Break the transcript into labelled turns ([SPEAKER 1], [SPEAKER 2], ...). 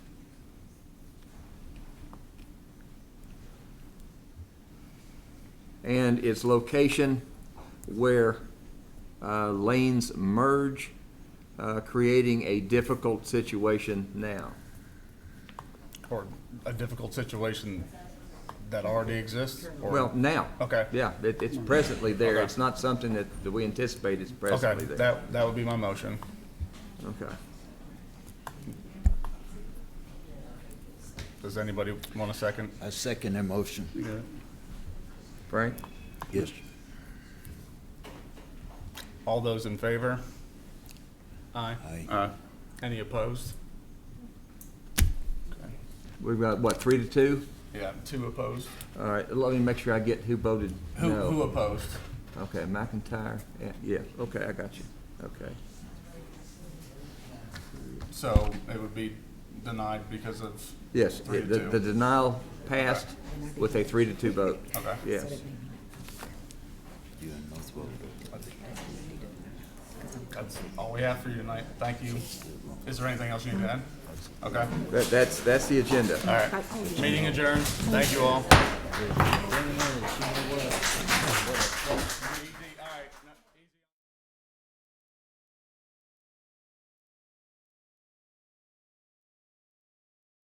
[SPEAKER 1] and its location where uh, lanes merge, uh, creating a difficult situation now.
[SPEAKER 2] Or a difficult situation that already exists? or-
[SPEAKER 1] Well, now.
[SPEAKER 2] Okay.
[SPEAKER 1] Yeah, it, it's presently there.
[SPEAKER 2] Okay.
[SPEAKER 1] It's not something that, that we anticipate is
[SPEAKER 2] Okay,
[SPEAKER 1] presently there.
[SPEAKER 2] that, that would be my motion.
[SPEAKER 1] Okay.
[SPEAKER 2] Does anybody want a second?
[SPEAKER 3] I second that motion.
[SPEAKER 1] Frank?
[SPEAKER 3] Yes.
[SPEAKER 2] All those in favor? Aye.
[SPEAKER 3] Aye.
[SPEAKER 2] Any opposed? Okay.
[SPEAKER 1] We've got, what, three to two?
[SPEAKER 2] Yeah, two opposed.
[SPEAKER 1] All right, let me make sure I get who voted
[SPEAKER 2] Who, who
[SPEAKER 1] no.
[SPEAKER 2] opposed?
[SPEAKER 1] Okay, McIntyre, Yeah, yeah, okay, I got you, okay.
[SPEAKER 2] So it would be denied because of,
[SPEAKER 1] Yes,
[SPEAKER 2] Three
[SPEAKER 1] the,
[SPEAKER 2] to two.
[SPEAKER 1] the denial passed with a three to two vote,
[SPEAKER 2] okay.
[SPEAKER 1] yes.
[SPEAKER 3] You and North voted.
[SPEAKER 2] That's all we have for you tonight. Thank you. Is there anything else you need to add? Okay,
[SPEAKER 1] That, that's, that's the agenda.
[SPEAKER 2] all right. Meeting adjourned. Thank you all.